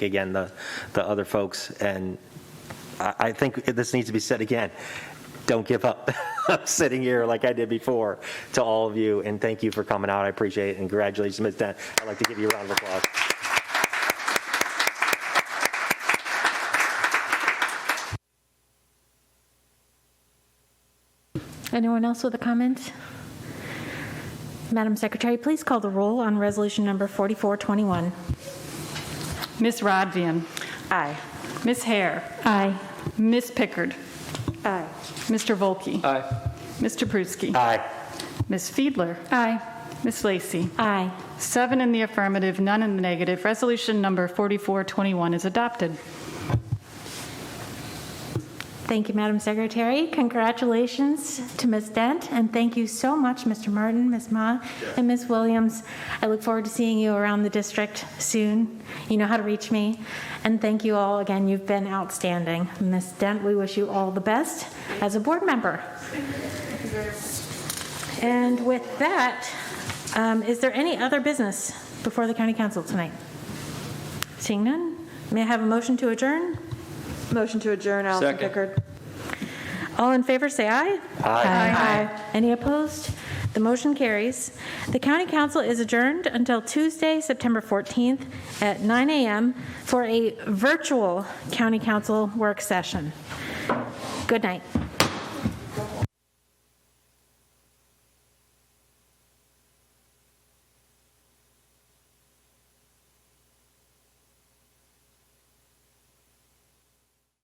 again, the, the other folks, and I, I think this needs to be said again. Don't give up. I'm sitting here like I did before to all of you, and thank you for coming out. I appreciate it, and congratulations, Ms. Dent. I'd like to give you a round of applause. Anyone else with a comment? Madam Secretary, please call the roll on resolution number 4421. Miss Rodvian. Aye. Miss Hare. Aye. Miss Pickard. Aye. Mr. Volkey. Aye. Mr. Pruski. Aye. Miss Fiedler. Aye. Miss Lacey. Aye. Seven in the affirmative, none in the negative. Resolution number 4421 is adopted. Thank you, Madam Secretary. Congratulations to Ms. Dent, and thank you so much, Mr. Martin, Ms. Ma, and Ms. Williams. I look forward to seeing you around the district soon. You know how to reach me. And thank you all again. You've been outstanding. Ms. Dent, we wish you all the best as a board member. And with that, um, is there any other business before the county council tonight? Seeing none, may I have a motion to adjourn? Motion to adjourn, Allison Second. Pickard. All in favor, say aye. Aye. Any opposed? The motion carries. The county council is adjourned until Tuesday, September 14th at 9 a.m. for a virtual county council work session. Good night.